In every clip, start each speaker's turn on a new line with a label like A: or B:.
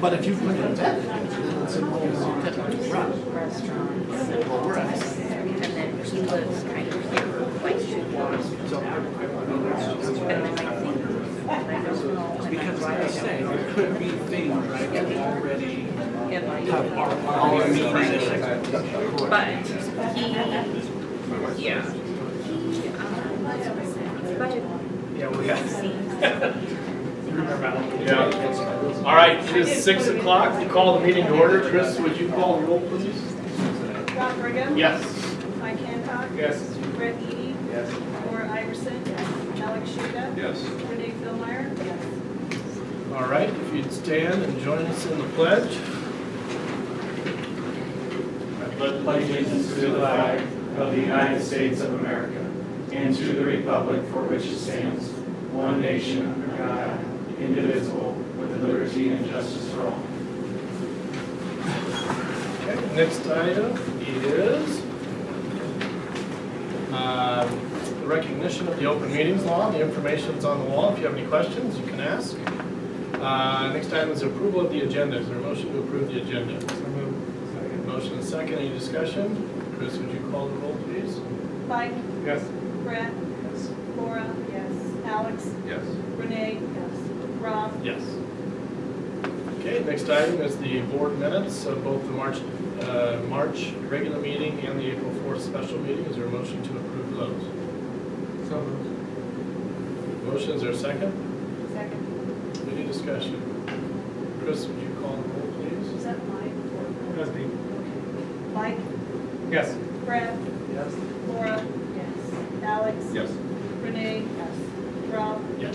A: But if you put it back, then it's a whole different run.
B: restaurants.
A: Well, we're at-
B: And then he lives kind of here, like two blocks from
A: So-
B: there. And then I think, I don't know. when I
C: Because like I
B: drive
C: say, there could be things, right, that already
B: him, I-
C: have, are already meeting.
B: But he, yeah. He, um, his budget
C: Yeah, we have.
B: seems
D: Yeah. All right, it is six o'clock. We'll call the meeting to order. Chris, would you call the roll, please?
E: Rob Brigham.
D: Yes.
E: Mike Hancock.
D: Yes.
E: Brett Eady.
D: Yes.
E: Laura Iverson. Alex Shida.
D: Yes.
E: Renee Philmeyer.
D: All right, if you'd stand and join us in the pledge.
F: Let pledge allegiance to the flag of the United States of America and to the republic for which it stands, one nation under God, indivisible, with liberty and justice for all.
D: Okay, next item is um, the recognition of the open meetings law. The information's on the wall. If you have any questions, you can ask. Uh, Next item is approval of the agenda. Is there a motion to approve the agenda? Motion and second. Any discussion? Chris, would you call the roll, please?
E: Mike.
D: Yes.
E: Brett. Laura. Yes. Alex.
D: Yes.
E: Renee. Yes. Rob.
D: Yes. Okay, next item is the board minutes of both the March, uh, March regular meeting and the April 4th special meeting. Is there a motion to approve those? Motion, is there a second?
E: Second.
D: Any discussion? Chris, would you call the roll, please?
E: Is that Mike? or-
D: Yes,
E: Mike.
D: Yes.
E: Brett.
D: Yes.
E: Laura. Yes. Alex.
D: Yes.
E: Renee. Yes. Rob.
D: Yes.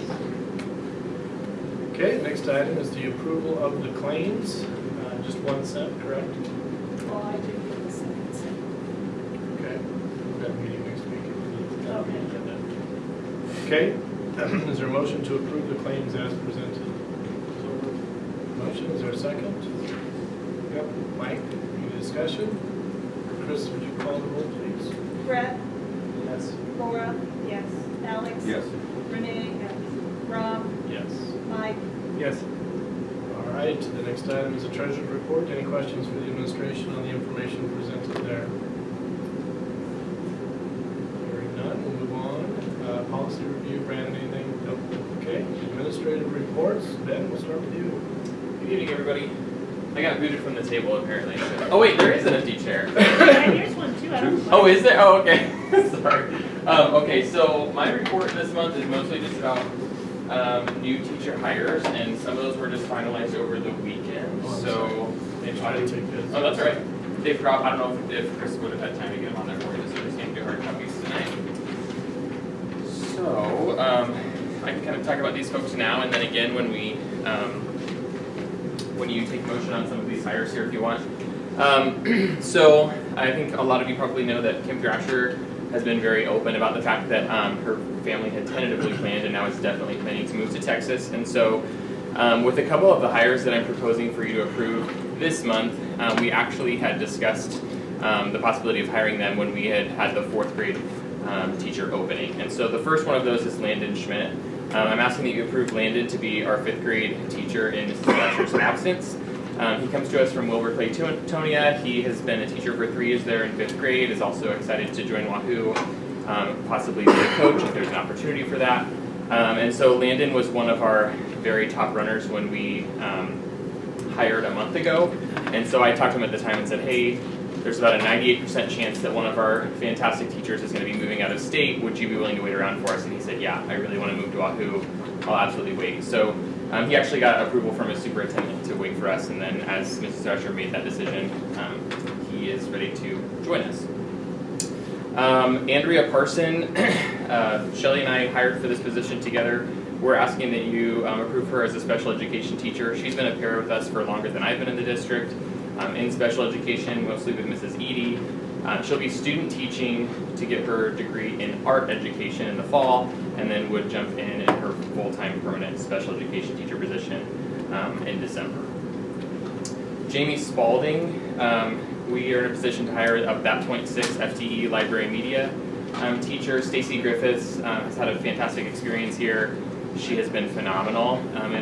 D: Okay, next item is the approval of the claims, Uh, just one cent, correct?
E: Well, I do get the second. so-
D: Okay, we've got a meeting next week.
E: Okay.
D: Okay, is there a motion to approve the claims as presented? Motion, is there a second? Yep. Mike, any discussion? Chris, would you call the roll, please?
E: Brett.
D: Yes.
E: Laura. Yes. Alex.
D: Yes.
E: Renee. Yes. Rob.
D: Yes.
E: Mike.
D: Yes. All right, the next item is the treasurer's report. Any questions for the administration on the information presented there? Hearing none, we'll move on. Uh, Policy review, Brandon, anything? Nope. Okay, administrative reports. Ben, we'll start with you.
G: Good evening, everybody. I got booted from the table apparently. Oh wait, there is an empty chair.
H: Here's one too, I don't.
G: Oh, is there? Oh, okay. Sorry. Um, okay, so my report this month is mostly just about um, new teacher hires, and some of those were just finalized over the weekend.
D: Oh, I'm
G: so they
D: Try
G: tried
D: to
G: to.
D: take this.
G: Oh, that's all right. They prob. I don't know if, if Chris would have had time to get them on there for you, so just gonna do hard copies tonight. So um, I can kind of talk about these folks now, and then again when we um, when you take motion on some of these hires here if you want. Um, so I think a lot of you probably know that Kim Thrasher has been very open about the fact that um, her family had tentatively planned and now is definitely planning to move to Texas. And so, um, with a couple of the hires that I'm proposing for you to approve this month, um, we actually had discussed um, the possibility of hiring them when we had had the fourth grade um, teacher opening. And so the first one of those is Landon Schmidt. Um, I'm asking that you approve Landon to be our fifth grade teacher in Mrs. Thrasher's absence. Um, he comes to us from Wilbur Clay To- Tonia. He has been a teacher for three years there in fifth grade, is also excited to join Wahoo, um, possibly be a coach if there's an opportunity for that. Um, and so Landon was one of our very top runners when we um, hired a month ago. And so I talked to him at the time and said, hey, there's about a 98% chance that one of our fantastic teachers is going to be moving out of state. Would you be willing to wait around for us? And he said, yeah, I really want to move to Wahoo. I'll absolutely wait. So um, he actually got approval from his superintendent to wait for us. And then as Mrs. Thrasher made that decision, um, he is ready to join us. Um, Andrea Parson, uh, Shelly and I hired for this position together. We're asking that you um, approve her as a special education teacher. She's been a pair with us for longer than I've been in the district, um, in special education, mostly with Mrs. Edie. Uh, she'll be student teaching to get her degree in art education in the fall, and then would jump in in her full-time permanent special education teacher position um, in December. Jamie Spalding, um, we are in a position to hire up that point six FTE library media um, teacher. Stacy Griffiths um, has had a fantastic experience here. She has been phenomenal um, in